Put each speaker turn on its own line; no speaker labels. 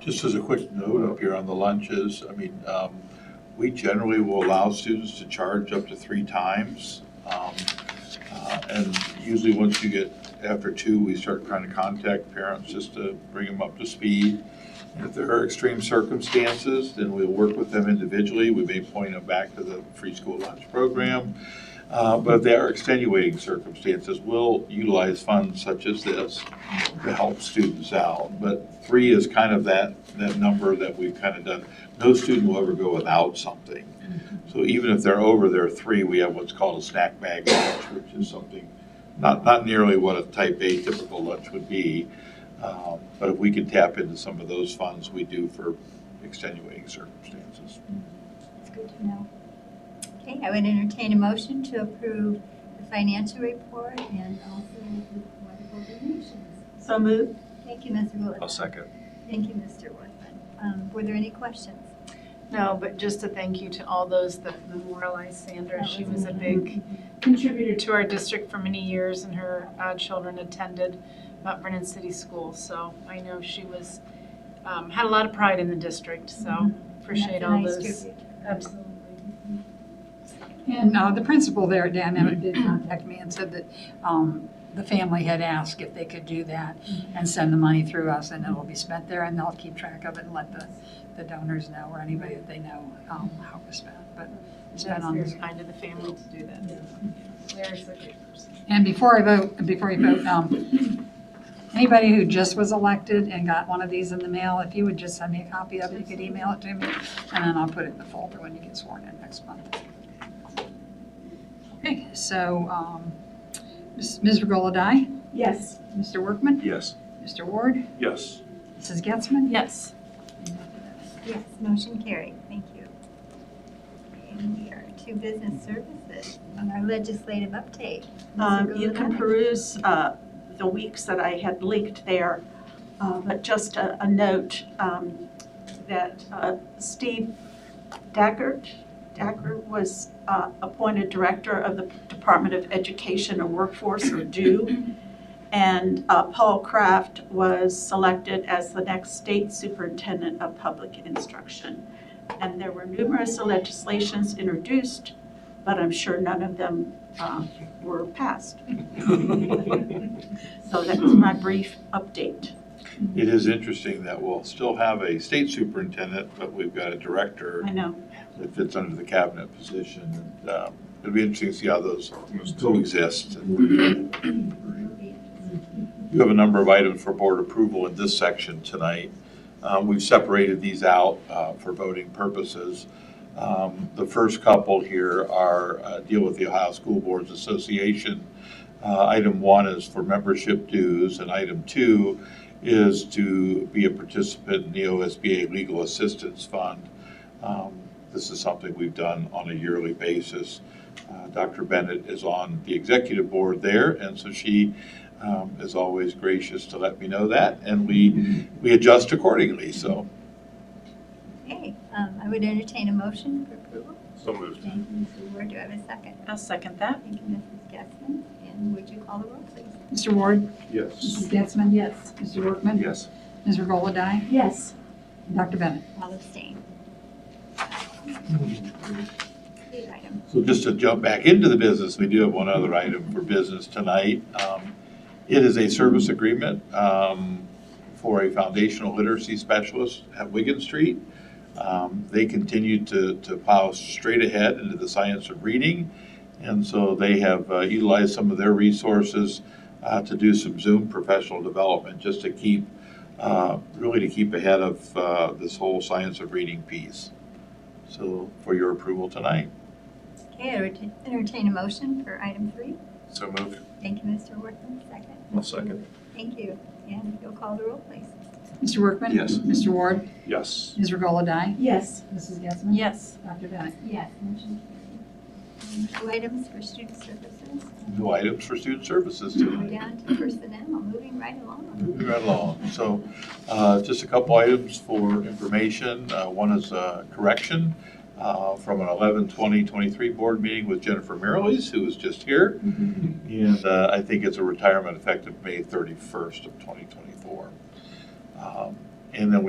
Just as a quick note up here on the lunches, I mean, um, we generally will allow students to charge up to three times. Um, uh, And usually, once you get, after two, we start trying to contact parents just to bring them up to speed. If there are extreme circumstances, then we'll work with them individually. We may point them back to the free school lunch program. Uh, But if there are extenuating circumstances, we'll utilize funds such as this to help students out. But three is kind of that, that number that we've kind of done. No student will ever go without something. So even if they're over their three, we have what's called a snack bag lunch, which is something, not, not nearly what a type A typical lunch would be. Um, But if we can tap into some of those funds, we do for extenuating circumstances.
That's good to know. Okay, I would entertain a motion to approve the financial report and also the wonderful donations.
So moved.
Thank you, Mr. Woodman.
second.
Thank you, Mr. Worthman. Um, Were there any questions?
No, but just a thank you to all those that memorialized Sandra.
That
She
was
was a big contributor to our district for many years, and her uh, children attended Mount Vernon City School. So I know she was, um, had a lot of pride in the district, so appreciate
That's a
all
nice
those.
tribute.
Absolutely.
And uh, the principal there, Dan Emmett, did contact me and said that um, the family had asked if they could do that and send the money through us, and it'll be spent there, and they'll keep track of it and let the the donors know, or anybody that they know, um, how it was spent, but it's been
That's
on
very
this.
kind of the family to do that. Larry's a good person.
And before I vote, before you vote, um, anybody who just was elected and got one of these in the mail, if you would just send me a copy of it, you could email it to me, and then I'll put it in the folder when you get sworn in next month. Okay, so um, Ms. Ms. Regola-Dye,
Yes.
Mr. Workman,
Yes.
Mr. Ward,
Yes.
Mrs. Getzmann.
Yes.
Yes, motion carried. Thank you. And we are to business services on our legislative update. Mr.
Um, You can
Gulladai.
peruse uh, the weeks that I had leaked there, Uh, but just a a note um, that uh, Steve Daggert, Daggert was uh, appointed Director of the Department of Education and Workforce, or DO, and uh, Paul Kraft was selected as the next State Superintendent of Public Instruction. And there were numerous legislations introduced, but I'm sure none of them um, were passed. So that's my brief update.
It is interesting that we'll still have a state superintendent, but we've got a director
I know.
that fits under the cabinet position. And, um, It'll be interesting to see how those coexist. You have a number of items for board approval in this section tonight. Um, We've separated these out uh, for voting purposes. Um, The first couple here are, uh, deal with the Ohio School Boards Association. Uh, Item one is for membership dues, and item two is to be a participant in the OSBA Legal Assistance Fund. Um, This is something we've done on a yearly basis. Uh, Dr. Bennett is on the executive board there, and so she um, is always gracious to let me know that, and we, we adjust accordingly, so.
Okay, um, I would entertain a motion for approval.
So moved. Uh.
Thank you, Mr. Ward. Do I have a second?
I'll second that.
Thank you, Mrs. Getzmann. And would you call the roll, please?
Mr. Ward,
Yes.
Mrs. Getzmann. Yes. Mr. Workman.
Yes.
Ms. Regola-Dye,
Yes.
Dr. Bennett.
All abstain. Lead item.
So just to jump back into the business, we do have one other item for business tonight. Um, It is a service agreement um, for a foundational literacy specialist at Wigan Street. Um, They continue to, to plow straight ahead into the science of reading. And so they have uh, utilized some of their resources uh, to do some Zoom professional development, just to keep, uh, really to keep ahead of uh, this whole science of reading piece. So for your approval tonight.
Okay, I would entertain a motion for item three.
So moved.
Thank you, Mr. Workman. Second.
I'll second.
Thank you. And you'll call the roll, please.
Mr. Workman.
Yes.
Mr. Ward,
Yes.
Ms. Regola-Dye,
Yes.
Mrs. Getzmann.
Yes.
Dr. Bennett.
Yes, motion carried. And Two items for student services.
no items for student services
We're
tonight.
down to personnel, moving right along.
Moving right along. So uh, just a couple items for information. Uh, One is a correction uh, from an 11/20/23 board meeting with Jennifer Merrilies, who was just here. And uh, I think it's a retirement effective May 31st of 2024. Um, And then we